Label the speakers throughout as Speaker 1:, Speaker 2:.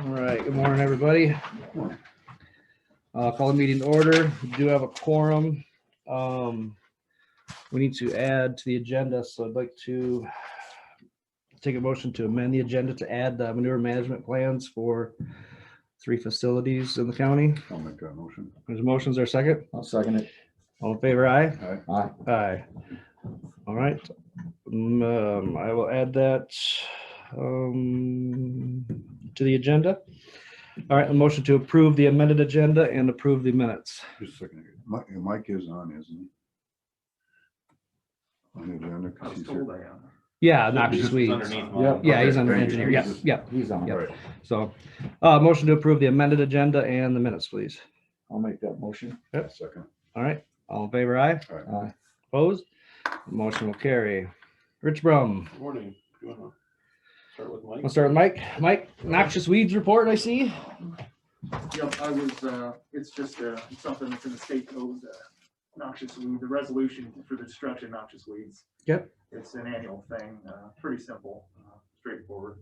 Speaker 1: right, good morning, everybody. Uh, call the meeting to order. We Do have a quorum. Um, we need to add to the agenda, so I'd like to take a motion to amend the agenda to add the manure management plans for three facilities in the county.
Speaker 2: I'll make that motion.
Speaker 1: There's motions, there a second?
Speaker 3: I'll second it.
Speaker 1: All in favor, aye?
Speaker 2: All right,
Speaker 3: Aye.
Speaker 1: Aye. All right, um, I will add that, um, to the agenda. All right, a motion to approve the amended agenda and approve the minutes.
Speaker 2: just a second. Mike, Mike is on, isn't he? On the agenda, 'cause he's here.
Speaker 1: Yeah,
Speaker 4: uh,
Speaker 1: noxious
Speaker 2: It's
Speaker 1: weeds.
Speaker 5: Underneath
Speaker 3: Yep.
Speaker 5: mine.
Speaker 1: Yeah, he's
Speaker 2: Okay,
Speaker 1: under
Speaker 2: thank you.
Speaker 1: engineer, yeah, yeah,
Speaker 3: He's on.
Speaker 1: yeah.
Speaker 3: it.
Speaker 2: Right.
Speaker 1: So, uh, motion to approve the amended agenda and the minutes, please.
Speaker 3: I'll make that motion.
Speaker 2: Second.
Speaker 1: All right, all in favor, aye?
Speaker 3: Aye.
Speaker 1: Opposed? Motion will carry. Rich Brum,
Speaker 5: Morning. You wanna Start with Mike.
Speaker 1: let's start with Mike. Mike, noxious weeds report, I see.
Speaker 4: Yep, I was, uh, it's just, uh, something that's in the state code, uh, noxious weed, the resolution for the destruction of noxious weeds.
Speaker 1: Yep.
Speaker 4: It's an annual thing, uh, pretty simple, uh, straightforward.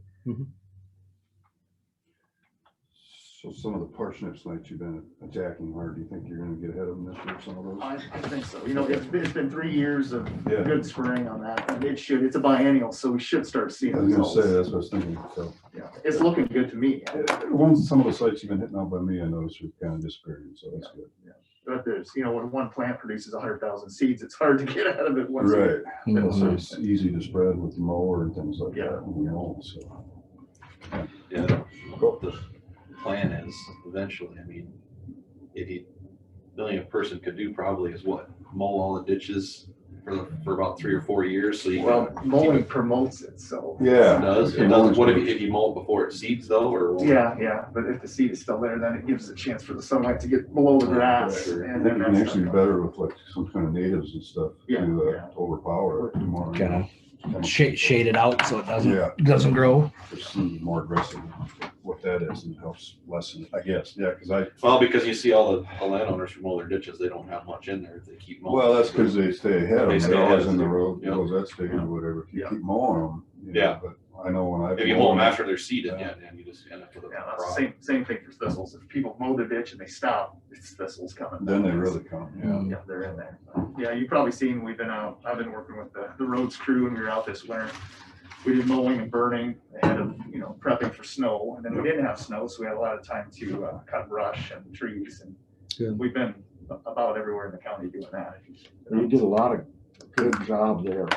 Speaker 2: So some of the parsnips that you've been attacking hard, do you think you're gonna get ahead of them this year, some of those?
Speaker 4: I, I think so, you know, it's been, it's been three years of
Speaker 2: Yeah.
Speaker 4: good spraying on that, and it should, it's a biennial, so we should start seeing
Speaker 2: I was gonna say, uh,
Speaker 4: results.
Speaker 2: that's what I was thinking, so.
Speaker 4: Yeah, It's looking good to me,
Speaker 2: Uh, Ones, some of the sites you've been hitting out by me, I noticed are kind of disappearing, so that's good.
Speaker 4: but there's, you know, when one plant produces hundred thousand seeds, it's hard to get out of it once.
Speaker 2: Right, so it's easy to spread with the mower and things like
Speaker 4: Yeah.
Speaker 2: that, you know, so.
Speaker 6: Yeah, what the plan is eventually, I mean, eighty million a person could do probably is what? Mow all the ditches for, the- for about three or four years, so you.
Speaker 4: Well, mowing promotes it, so.
Speaker 2: Yeah.
Speaker 6: Does,
Speaker 2: okay,
Speaker 6: it does,
Speaker 2: mowing's
Speaker 6: what if
Speaker 2: good.
Speaker 6: you, if you mow it before it seeds though, or?
Speaker 4: Yeah, yeah, but if the seed is still there, then it gives a chance for the sunlight to get below the grass
Speaker 6: Sure.
Speaker 2: I
Speaker 4: and
Speaker 2: think
Speaker 4: then
Speaker 2: you can
Speaker 4: that's.
Speaker 2: actually be
Speaker 4: not-
Speaker 2: better with like some kind of natives and stuff
Speaker 4: Yeah,
Speaker 2: to
Speaker 4: yeah.
Speaker 2: uh, overpower it more. you know,
Speaker 1: Kinda shade, shade it out so it doesn't,
Speaker 2: Yeah,
Speaker 1: doesn't grow.
Speaker 2: just some more aggressive, what that is and helps lessen, I guess, yeah, because I,
Speaker 6: Well, because you see all the, the landowners who mow their ditches, they don't have much in there, if they keep mowing.
Speaker 2: well, that's because they stay ahead of
Speaker 6: They
Speaker 2: them,
Speaker 6: stay
Speaker 2: they're
Speaker 6: ahead
Speaker 2: always
Speaker 6: of
Speaker 2: in the
Speaker 6: them,
Speaker 2: road,
Speaker 6: yeah.
Speaker 2: goes that state
Speaker 6: Yeah.
Speaker 2: or whatever, if you
Speaker 4: Yeah.
Speaker 2: keep mowing them. you know,
Speaker 6: Yeah.
Speaker 2: But I know when I.
Speaker 6: If you mow them after they're seeded, yeah, then you just end up with a
Speaker 4: Yeah, that's the
Speaker 6: problem.
Speaker 4: same, same thing for thistles. If people mow the ditch and they stop, it's thistles coming.
Speaker 2: Then they really come, yeah.
Speaker 4: Yeah, they're in there. Yeah, you've probably seen, we've been out, I've been working with the, the roads crew and we were out this winter. We did mowing and burning ahead of, you know, prepping for snow. And then we didn't have snow, so we had a lot of time to, uh, cut brush and trees
Speaker 1: Good.
Speaker 4: and we've been about everywhere in the county doing that.
Speaker 3: You did a lot of good job there.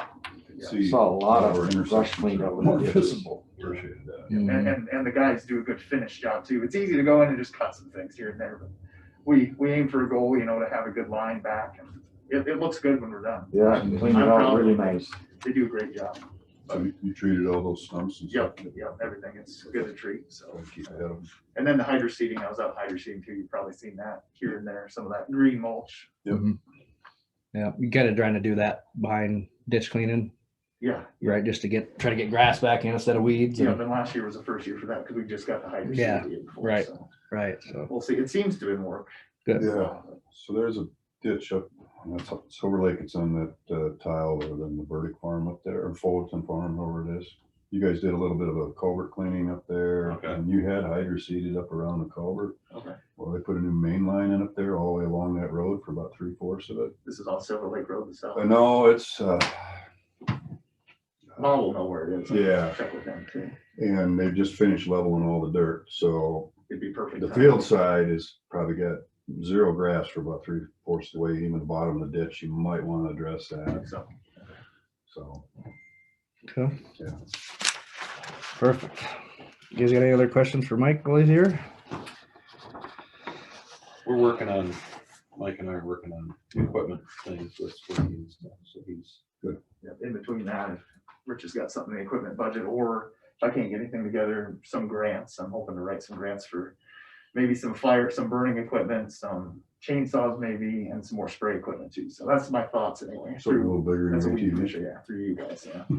Speaker 2: See,
Speaker 3: Saw a lot of
Speaker 2: our intersections
Speaker 3: brush cleanup
Speaker 2: are
Speaker 3: and
Speaker 2: More
Speaker 3: ditches.
Speaker 2: visible, appreciate that.
Speaker 1: Mm-hmm.
Speaker 4: And, and, and the guys do a good finish job too. It's easy to go in and just cut some things here and there, but we, we aim for a goal, you know, to have a good line back and it, it looks good when we're done.
Speaker 3: Yeah, and cleaned it out really nice.
Speaker 4: They do a great job.
Speaker 2: So you- you treated all those stumps and stuff.
Speaker 4: Yep, yep, everything. It's good to treat, so.
Speaker 2: Try to Keep ahead of them.
Speaker 4: And then the hydro seeding, I was out hydro seeding too. You've probably seen that here and there, some of that green mulch.
Speaker 1: Yeah, you kind of trying to do that behind ditch cleaning,
Speaker 4: Yeah,
Speaker 1: right? Just to get, try to get grass back in instead of weeds.
Speaker 4: yeah,
Speaker 1: and-
Speaker 4: then last year was the first year for that because we just got the hydro.
Speaker 1: Yeah,
Speaker 4: seeding the year before,
Speaker 1: right.
Speaker 4: so
Speaker 1: Right, so.
Speaker 4: We'll see. It seems to have been work.
Speaker 1: Good.
Speaker 2: Yeah, so there's a ditch up, and that's up Silver Lake, it's on that uh, tile or then the Burdick Farm up there, or Fullerton Farm, whoever it is. You guys did a little bit of a culvert cleaning up there,
Speaker 6: Okay.
Speaker 2: and you had hydro seeded up around the culvert.
Speaker 4: Okay.
Speaker 2: Well, they put a new main line in up there all the way along that road for about three fourths of it.
Speaker 4: This is on Silver Lake Road, the south.
Speaker 2: Uh, No, it's, uh,
Speaker 4: Mom will know where it is. I'll
Speaker 2: Yeah.
Speaker 4: Check with them too.
Speaker 2: and they've just finished leveling all the dirt, so
Speaker 4: It'd be perfect.
Speaker 2: the
Speaker 4: timing.
Speaker 2: field side is probably got zero grass for about three fourths of the way, even the bottom of the ditch, you might want to address that,
Speaker 4: So,
Speaker 2: so.
Speaker 1: okay.
Speaker 2: Yeah.
Speaker 1: Perfect. You guys got any other questions for Mike while he's here?
Speaker 6: We're working on, Mike and I are working on equipment things with, with him and stuff, so he's.
Speaker 4: yeah, in between that, if Rich has got something in the equipment budget, or if I can't get anything together, some grants, I'm hoping to write some grants for maybe some fire, some burning equipment, some chainsaws maybe, and some more spray equipment too. So that's my thoughts anyway.
Speaker 2: So a little bigger. than
Speaker 4: That's what we
Speaker 2: ATV.
Speaker 4: appreciate, yeah, through you guys, yeah.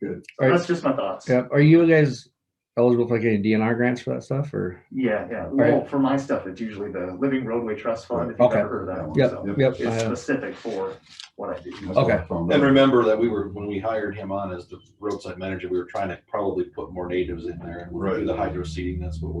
Speaker 2: Good.
Speaker 4: So That's just my thoughts.
Speaker 1: Yep. Are you guys eligible for like any DNR grants for that stuff or?
Speaker 4: Yeah, yeah. Well, for my stuff, it's usually the Living Roadway Trust Fund, if you've
Speaker 1: Okay.
Speaker 4: ever heard of that one.
Speaker 2: Yep,
Speaker 4: so
Speaker 1: Yep. I
Speaker 4: It's
Speaker 1: have-
Speaker 4: specific for what I do.
Speaker 2: That's what I
Speaker 1: Okay.
Speaker 2: found out.
Speaker 6: And remember that we were, when we hired him on as the roadside manager, we were trying to probably put more natives in there and we're gonna do the hydro seeding, that's what we're